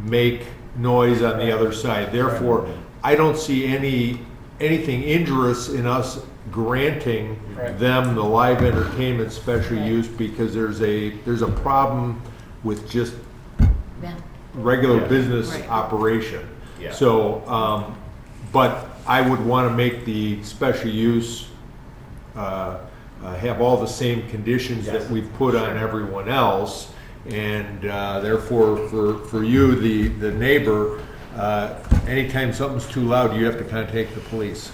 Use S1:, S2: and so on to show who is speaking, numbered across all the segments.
S1: make noise on the other side. Therefore, I don't see any, anything injurious in us granting
S2: Right.
S1: them the live entertainment special use because there's a, there's a problem with just
S3: Yeah.
S1: regular
S2: Yeah.
S1: business
S3: Right.
S1: operation.
S2: Yeah.
S1: So, um, but I would want to make the special use, uh, uh, have all the same conditions that
S2: Yes.
S1: we've put on everyone else. And uh, therefore, for, for you, the, the neighbor, uh, anytime something's too loud, you have to contact the police.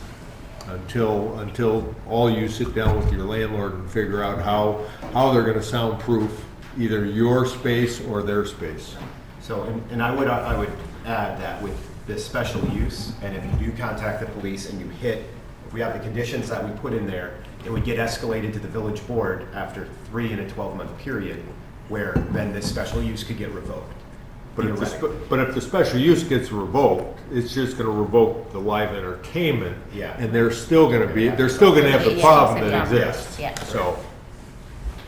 S1: Until, until all you sit down with your landlord and figure out how, how they're going to soundproof either your space or their space.
S2: So, and- and I would, I would add that with this special use, and if you do contact the police and you hit, if we have the conditions that we put in there, it would get escalated to the village board after three and a 12-month period, where then this special use could get revoked.
S1: But if, the
S2: theoretically.
S1: spe- but if the special use gets revoked, it's just gonna revoke the live entertainment.
S2: Yeah.
S1: And they're still gonna be, they're still gonna have the
S3: Yeah,
S1: problem that
S3: it's a problem.
S1: exists.
S3: Yeah.
S1: So,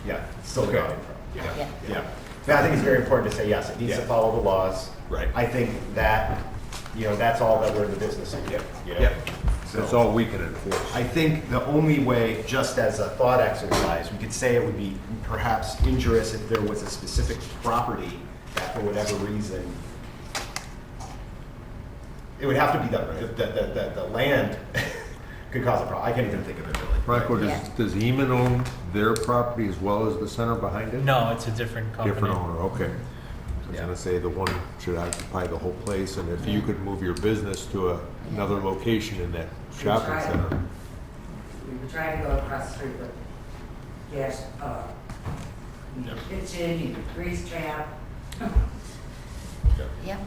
S2: Yeah, it's still
S1: Okay.
S2: going.
S3: Yeah.
S2: Yeah. But I think it's very important to say, yes, it needs to
S1: Yeah.
S2: follow the laws.
S1: Right.
S2: I think that, you know, that's all that we're in the business of, you know?
S1: yeah,
S2: So-
S1: that's all we can enforce.
S2: I think the only way, just as a thought exercise, we could say it would be perhaps injurious if there was a specific property that for whatever reason, it would have to be the, the, the, the, the land could cause a problem. I can't even think of it really.
S1: Michael, does,
S3: Yeah.
S1: does Heman own their property as well as the center behind it?
S4: No, it's a different company.
S1: Different owner, okay. I was
S2: Yeah.
S1: gonna say the one should occupy the whole place, and if you could move your business to a- another location in that shopping
S5: Right.
S1: center.
S5: We were trying to go across the street, but gas, uh,
S2: Yep.
S5: kitchen, you could grease trap.
S3: Yep.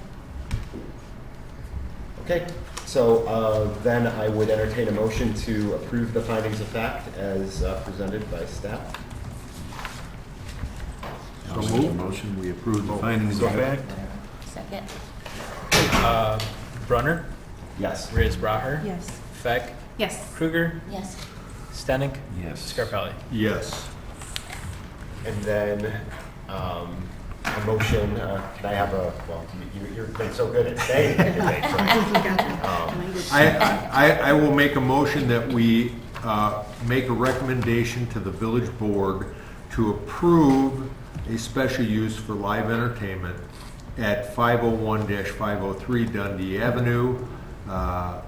S2: Okay, so uh, then I would entertain a motion to approve the findings of fact as uh, presented by staff.
S1: So move.
S6: Motion, we approve the findings of fact.
S3: Second.
S4: Uh, Brunner,
S2: Yes.
S4: Riz Braher,
S3: Yes.
S4: Feck,
S7: Yes.
S4: Kruger,
S3: Yes.
S4: Stenick,
S6: Yes.
S4: Scarpelli.
S1: Yes.
S2: And then, um, a motion, uh, can I have a, well, you, you- you've been so good at saying everything, right?
S1: I, I, I will make a motion that we uh, make a recommendation to the village board to approve a special use for live entertainment at 501-503 Dundee Avenue, uh,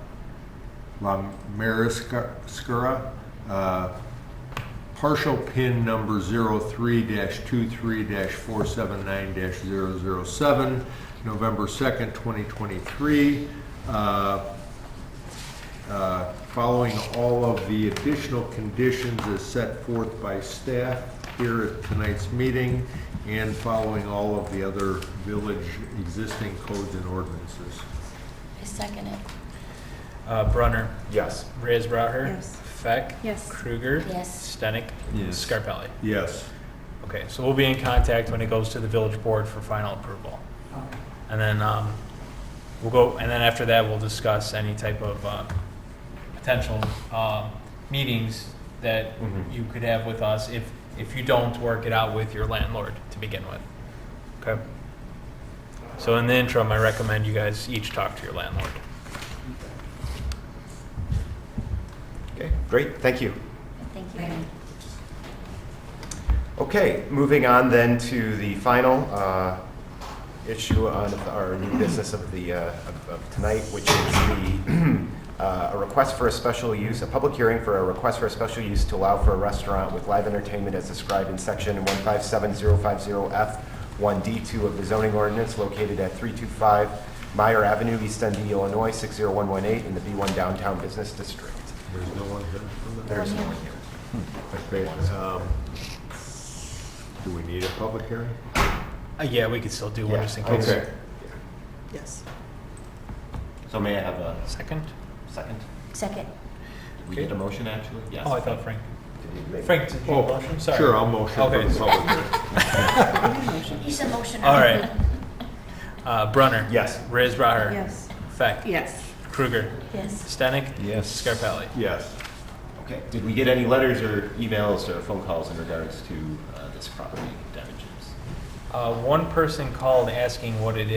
S1: La Mariscara, uh, partial pin number 03-23-479-007, November 2nd, 2023, uh, uh, following all of the additional conditions as set forth by staff here at tonight's meeting, and following all of the other village existing codes and ordinances.
S3: I second it.
S4: Uh, Brunner,
S2: Yes.
S4: Riz Braher,
S7: Yes.
S4: Feck,
S7: Yes.
S4: Kruger,
S3: Yes.
S4: Stenick,
S6: Yes.
S4: Scarpelli.
S1: Yes.
S4: Okay, so we'll be in contact when it goes to the village board for final approval.
S5: Okay.
S4: And then um, we'll go, and then after that, we'll discuss any type of uh, potential um, meetings that
S2: Mhm.
S4: you could have with us if, if you don't work it out with your landlord to begin with. Okay? So in the interim, I recommend you guys each talk to your landlord.
S2: Okay, great, thank you.
S3: Thank you.
S5: Thank you.
S2: Okay, moving on then to the final uh, issue on our new business of the, uh, of of tonight, which is the, uh, a request for a special use, a public hearing for a request for a special use to allow for a restaurant with live entertainment as described in section 157050F1D2 of the zoning ordinance located at 325 Meyer Avenue, East Dundee, Illinois, 60118, in the B1 Downtown Business District.
S1: There's no one here from the-
S2: There's no one here.
S1: Okay, um, Do we need a public hearing?
S4: Uh, Yeah, we could still do one just in
S2: Yeah, I
S4: case.
S2: agree.
S7: Yes.
S8: So may I have a
S4: Second?
S8: second?
S3: Second.
S8: We did a motion, actually? Yes.
S4: Oh, I thought Frank.
S2: Did we make-
S4: Frank, did you
S1: Oh,
S4: motion? Sorry.
S1: Sure, I'll motion for
S4: Okay.
S1: the public hearing.
S3: He's a motioner.
S4: All right. Uh, Brunner.
S2: Yes.
S4: Riz Braher.
S7: Yes.
S4: Feck.
S7: Yes.
S4: Kruger.
S3: Yes.
S4: Stenick.
S6: Yes.
S4: Scarpelli.
S1: Yes.
S8: Okay. Did we get any letters or emails or phone calls in regards to uh, this property damages?
S4: Uh, one person called asking what it